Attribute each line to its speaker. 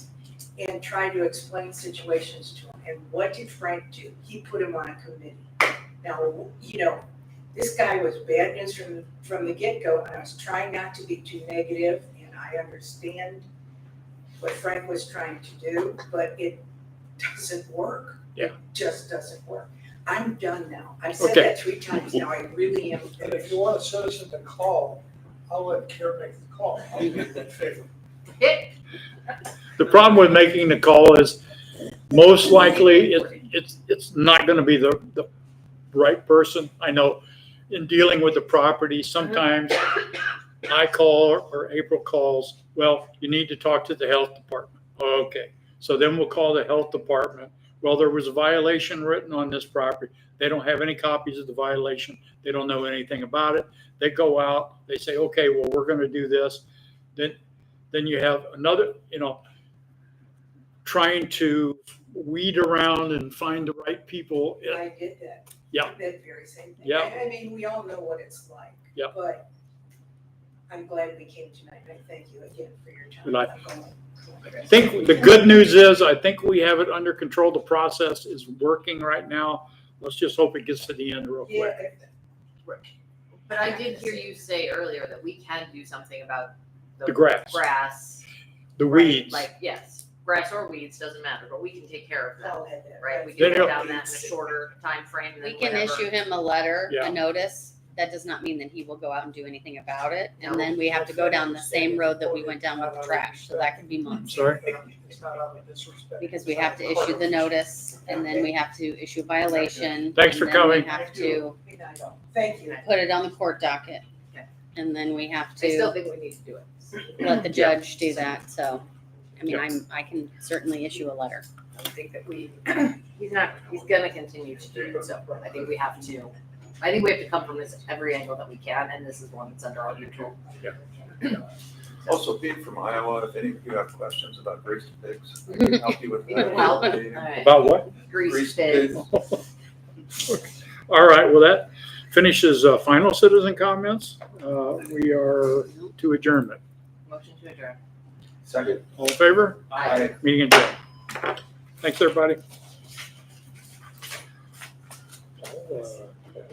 Speaker 1: and trying to explain situations to him. And what did Frank do? He put him on a committee. Now, you know, this guy was bad news from, from the get-go, and I was trying not to be too negative, and I understand what Frank was trying to do, but it doesn't work.
Speaker 2: Yeah.
Speaker 1: It just doesn't work. I'm done now. I've said
Speaker 2: Okay.
Speaker 1: that three times now. I really am.
Speaker 3: And if you want a citizen to call, I'll let Karen make the call. I'll be in favor.
Speaker 2: The problem with making the call is most likely it, it's, it's not gonna be the, the right person. I know in dealing with the property, sometimes I call or April calls, well, you need to talk to the health department. Okay, so then we'll call the health department. Well, there was a violation written on this property. They don't have any copies of the violation. They don't know anything about it. They go out, they say, okay, well, we're gonna do this. Then, then you have another, you know, trying to weed around and find the right people.
Speaker 1: I did that.
Speaker 2: Yeah.
Speaker 1: That very same thing.
Speaker 2: Yeah.
Speaker 1: I I mean, we all know what it's like.
Speaker 2: Yeah.
Speaker 1: But I'm glad we came tonight, and I thank you again for your time.
Speaker 2: Good night.
Speaker 1: I'm going-
Speaker 2: I think the good news is, I think we have it under control. The process is working right now. Let's just hope it gets to the end real quick.
Speaker 1: Yeah,
Speaker 4: But I did hear you say earlier that we can do something about
Speaker 2: The grass.
Speaker 4: Grass.
Speaker 2: The
Speaker 4: right,
Speaker 2: weeds.
Speaker 4: Like, yes, grass or weeds, doesn't matter, but we can take care of that,
Speaker 1: I'll have that.
Speaker 4: right? We
Speaker 2: There
Speaker 4: can
Speaker 2: you
Speaker 4: go
Speaker 2: go.
Speaker 4: down that in a shorter timeframe than
Speaker 5: We can
Speaker 4: whatever.
Speaker 5: issue him a letter,
Speaker 2: Yeah.
Speaker 5: a notice. That does not mean that he will go out and do anything about it.
Speaker 4: No.
Speaker 5: And then we have to go down the same road that we went down with the trash. So that could be
Speaker 2: I'm
Speaker 5: months.
Speaker 2: sorry.
Speaker 3: It's not out of disrespect.
Speaker 5: Because we have to issue the notice and then we have to issue violation.
Speaker 2: Thanks for
Speaker 5: and then
Speaker 2: coming.
Speaker 5: We have to
Speaker 1: Good night, all. Thank you.
Speaker 5: put it on the court docket.
Speaker 4: Okay.
Speaker 5: And then we have
Speaker 4: I still
Speaker 5: to
Speaker 4: think we need to do it.
Speaker 5: let the
Speaker 2: Yeah.
Speaker 5: judge do that. So, I mean,
Speaker 2: Yeah.
Speaker 5: I'm, I can certainly issue a letter.
Speaker 4: I think that we, he's not, he's gonna continue to do it, so I think we have to. I think we have to come from this every angle that we can, and this is one that's under our control.
Speaker 6: Also, Pete from Iowa, if any of you have questions about grease pigs, I can
Speaker 5: Well,
Speaker 6: help you with
Speaker 4: We can
Speaker 6: that.
Speaker 4: help.
Speaker 6: Grease
Speaker 4: Alright,
Speaker 2: About what?
Speaker 4: grease pigs.
Speaker 2: All right, well, that finishes uh, final citizen comments. Uh, We are to adjournment.
Speaker 4: Motion to adjourn.
Speaker 6: Second.
Speaker 2: All in favor?
Speaker 6: Aye.
Speaker 2: Meeting adjourned. Thanks, everybody.